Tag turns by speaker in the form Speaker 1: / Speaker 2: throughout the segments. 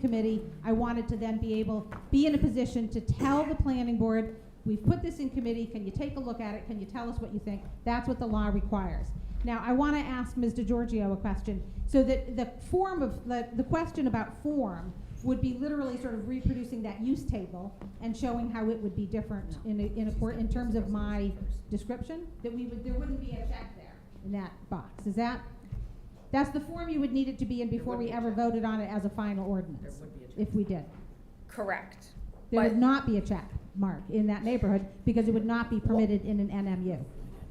Speaker 1: committee, I wanted to then be able, be in a position to tell the planning board, we've put this in committee, can you take a look at it, can you tell us what you think? That's what the law requires. Now, I want to ask Ms. DeGiorgio a question, so that the form of, the, the question about form would be literally sort of reproducing that use table and showing how it would be different in, a- in accord, in terms of my description, that we would, there wouldn't be a check there in that box, is that? That's the form you would need it to be in
Speaker 2: There
Speaker 1: before
Speaker 2: would
Speaker 1: we
Speaker 2: be a
Speaker 1: ever
Speaker 2: check.
Speaker 1: voted on it as a final ordinance,
Speaker 2: would be a
Speaker 1: if we did.
Speaker 3: Correct.
Speaker 1: There would
Speaker 3: But-
Speaker 1: not be a check mark in that neighborhood, because it would not be permitted in an NMU.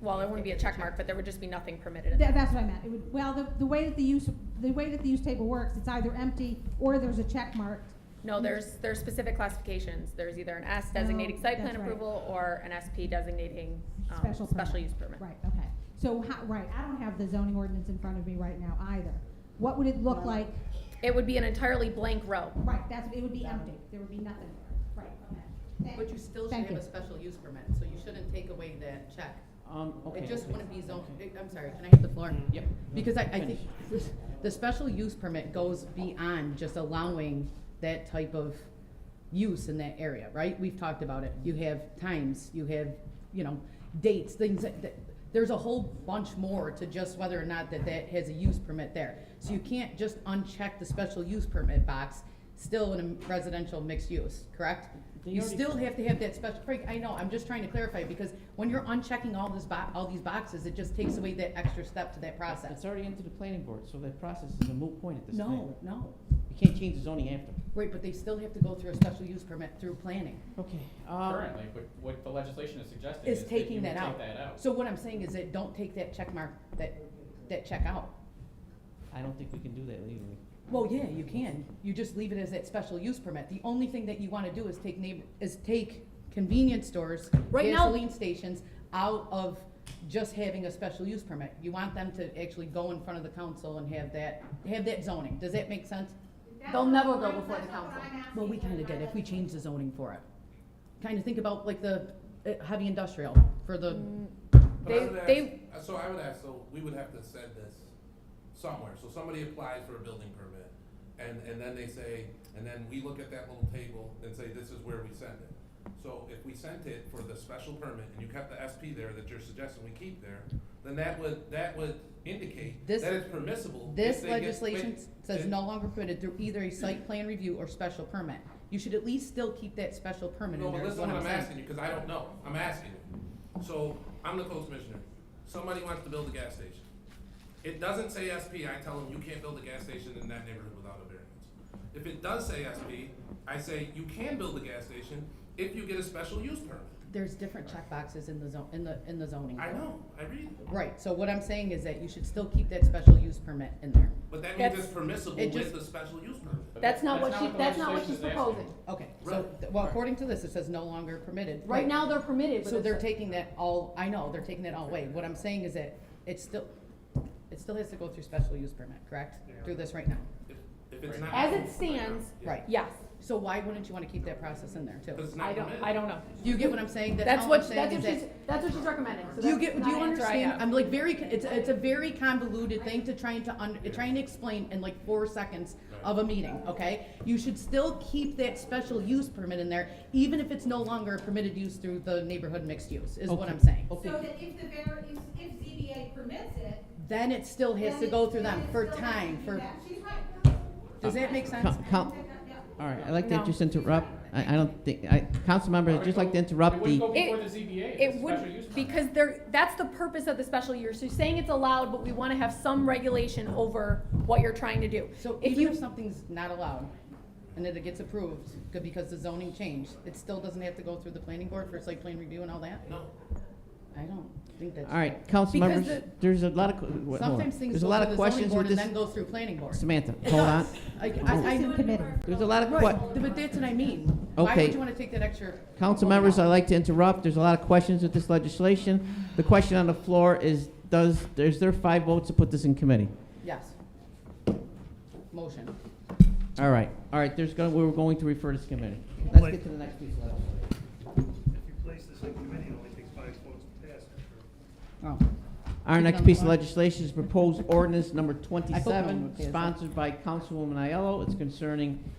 Speaker 3: Well, there wouldn't be a check mark, but there would just be nothing permitted in
Speaker 1: Tha-
Speaker 3: there.
Speaker 1: that's what I meant, it would, well, the, the way that the use, the way that the use table works, it's either empty or there's a check mark.
Speaker 3: No, there's, there's specific classifications. There's either an S designating
Speaker 2: Oh,
Speaker 1: No,
Speaker 3: site
Speaker 1: that's
Speaker 3: plan
Speaker 1: right.
Speaker 3: approval or an SP designating, um,
Speaker 1: Special
Speaker 3: special
Speaker 1: permit.
Speaker 3: use permit.
Speaker 1: Right, okay, so how, right, I don't have the zoning ordinance in front of me right now either. What would it look like,
Speaker 3: It would be an entirely blank row.
Speaker 1: right, that's, it would be empty, there would be nothing there, right, okay. Thank-
Speaker 2: But you still should
Speaker 1: Thank
Speaker 2: have a
Speaker 1: you.
Speaker 2: special use permit, so you shouldn't take away that check.
Speaker 4: Um, okay.
Speaker 2: It just
Speaker 4: okay,
Speaker 2: wouldn't be zoned,
Speaker 4: okay.
Speaker 2: I'm sorry, can I hit the floor?
Speaker 4: Yep.
Speaker 2: Because I, I think
Speaker 4: Finish.
Speaker 2: the special use permit goes beyond just allowing that type of use in that area, right? We've talked about it. You have times, you have, you know, dates, things that, that- there's a whole bunch more to just whether or not that that has a use permit there. So you can't just uncheck the special use permit box, still in a residential mixed use, correct?
Speaker 4: They
Speaker 2: You
Speaker 4: already-
Speaker 2: still have to have that special, Craig, I know, I'm just trying to clarify, because when you're unchecking all this bo- all these boxes, it just takes away that extra step to that process.
Speaker 4: It's already into the planning board, so that process is a moot point at this time.
Speaker 2: No, no.
Speaker 4: You can't change the zoning after.
Speaker 2: Right, but they still have to go through a special use permit through planning.
Speaker 4: Okay, um,
Speaker 5: Currently, what, what the legislation is suggesting
Speaker 2: Is
Speaker 5: is that you
Speaker 2: taking
Speaker 5: would
Speaker 2: that out.
Speaker 5: take that out.
Speaker 2: So what I'm saying is that don't take that check mark, that, that check out.
Speaker 4: I don't think we can do that legally.
Speaker 2: Well, yeah, you can. You just leave it as that special use permit. The only thing that you wanna do is take neighbor, is take convenience stores,
Speaker 3: Right now-
Speaker 2: gasoline stations out of just having a special use permit. You want them to actually go in front of the council and have that, have that zoning. Does that make sense? They'll never go before the council. Well, we kinda did, if we change the zoning for it. Kinda think about like the uh, heavy industrial for the,
Speaker 6: But I
Speaker 3: They,
Speaker 6: would ask-
Speaker 3: they,
Speaker 6: uh, So I would ask, so we would have to send this somewhere, so somebody applies for a building permit, and, and then they say, and then we look at that little table and say, this is where we send it. So if we sent it for the special permit, and you kept the SP there that you're suggesting we keep there, then that would, that would indicate
Speaker 2: This-
Speaker 6: that it's permissible. if
Speaker 2: this
Speaker 6: they get- wait,
Speaker 2: legislation says
Speaker 6: it-
Speaker 2: no longer permitted through either a site plan review or special permit. You should at least still keep that special permit
Speaker 6: No,
Speaker 2: in
Speaker 6: but
Speaker 2: there, is
Speaker 6: listen
Speaker 2: what I'm
Speaker 6: what I'm
Speaker 2: saying.
Speaker 6: asking you, because I don't know. I'm asking you. So, I'm the code commissioner. Somebody wants to build a gas station. It doesn't say SP, I tell them you can't build a gas station in that neighborhood without a variance. If it does say SP, I say you can build a gas station if you get a special use permit.
Speaker 2: There's different checkboxes in the zone, in the, in the zoning.
Speaker 6: I know, I read, it.
Speaker 2: Right, so what I'm saying is that you should still keep that special use permit in there.
Speaker 6: but that means
Speaker 3: That's-
Speaker 6: it's permissible
Speaker 2: it
Speaker 6: with
Speaker 2: just-
Speaker 6: the special use permit.
Speaker 5: But
Speaker 7: That's not what she,
Speaker 5: the
Speaker 7: that's not what she's
Speaker 5: legislation is asking.
Speaker 7: proposing.
Speaker 2: Okay, so,
Speaker 6: Right.
Speaker 2: th- well, according to this, it says no longer permitted.
Speaker 7: Right now, they're permitted, but
Speaker 2: So they're
Speaker 7: it's-
Speaker 2: taking that all, I know, they're taking that all away. What I'm saying is that it's still, it still has to go through special use permit, correct? Through this right now.
Speaker 6: If, if it's not.
Speaker 7: As it stands,
Speaker 6: Yeah.
Speaker 2: Right,
Speaker 3: yes,
Speaker 2: so why wouldn't you wanna keep that process in there too?
Speaker 6: 'Cause it's not
Speaker 7: I don't,
Speaker 6: permitted.
Speaker 7: I don't know.
Speaker 2: Do you get what I'm saying? That
Speaker 3: That's
Speaker 2: all
Speaker 3: what-
Speaker 2: I'm saying
Speaker 7: That's
Speaker 2: is
Speaker 7: what
Speaker 2: that-
Speaker 7: she's, that's what she's recommending, so
Speaker 2: Do you
Speaker 7: that's
Speaker 2: get, do
Speaker 7: not
Speaker 2: you
Speaker 7: an answer I
Speaker 2: understand?
Speaker 7: have.
Speaker 2: I'm like very, con- it's, it's a very convoluted thing to try and to un, trying to explain in like four seconds of a meeting, okay? You should still keep that special use permit in there, even if it's no longer a permitted use through the neighborhood mixed use, is what
Speaker 4: Okay,
Speaker 2: I'm saying.
Speaker 4: Okay,
Speaker 1: So that if the var, if, if ZBA permits it,
Speaker 2: Then it still has
Speaker 1: then
Speaker 2: to
Speaker 1: it-
Speaker 2: go through
Speaker 1: then
Speaker 2: them
Speaker 1: it
Speaker 2: for
Speaker 1: still has to
Speaker 2: time,
Speaker 1: do
Speaker 2: for,
Speaker 1: that. She's right.
Speaker 2: does that make
Speaker 4: Co-
Speaker 2: sense?
Speaker 4: coun- all right, I'd like to just interrupt, I, I don't think, I, council members, I'd just like to interrupt
Speaker 5: It
Speaker 4: the,
Speaker 5: wouldn't go
Speaker 3: It-
Speaker 5: before the ZBA,
Speaker 3: it
Speaker 5: if it's a special use
Speaker 3: would,
Speaker 5: permit.
Speaker 3: because there, that's the purpose of the special use. You're saying it's allowed, but we want to have some regulation over what you're trying to do.
Speaker 2: So
Speaker 3: If
Speaker 2: even
Speaker 3: you,
Speaker 2: if something's not allowed and that it gets approved, good, because the zoning changed, it still doesn't have to go through the planning board for site plan review and all that?
Speaker 6: No,
Speaker 2: I don't think that's.
Speaker 4: all right, council
Speaker 2: Because
Speaker 4: members,
Speaker 2: the-
Speaker 4: there's a lot of, que- wait, hold on.
Speaker 2: Sometimes things
Speaker 4: there's a
Speaker 2: go
Speaker 4: lot
Speaker 2: through
Speaker 4: of
Speaker 2: the zoning
Speaker 4: questions
Speaker 2: board
Speaker 4: with
Speaker 2: and
Speaker 4: this,
Speaker 2: then goes through planning board.
Speaker 4: Samantha,
Speaker 2: It
Speaker 4: hold on,
Speaker 2: does. I, I, I,
Speaker 1: It's in committee.
Speaker 4: there's a lot of que-
Speaker 2: right, but that's what I mean. Why
Speaker 4: Okay.
Speaker 2: would you wanna take that extra?
Speaker 4: Council
Speaker 2: vote
Speaker 4: members, uh,
Speaker 2: out?
Speaker 4: I'd like to interrupt. There's a lot of questions with this legislation. The question on the floor is, does, is there five votes to put this in committee?
Speaker 2: Yes. Motion.
Speaker 4: All right, all right, there's going, we're going to refer this to committee. Let's get to the next piece of legislation.
Speaker 8: If you place this in committee, it only takes five votes to pass it.
Speaker 2: Oh.
Speaker 4: Our
Speaker 2: Keep it
Speaker 4: next
Speaker 2: on
Speaker 4: piece
Speaker 2: the
Speaker 4: of
Speaker 2: floor.
Speaker 4: legislation is proposed ordinance number
Speaker 2: I hope no one would
Speaker 4: twenty-seven,
Speaker 2: pass that.
Speaker 4: sponsored by Councilwoman Aiello. It's concerning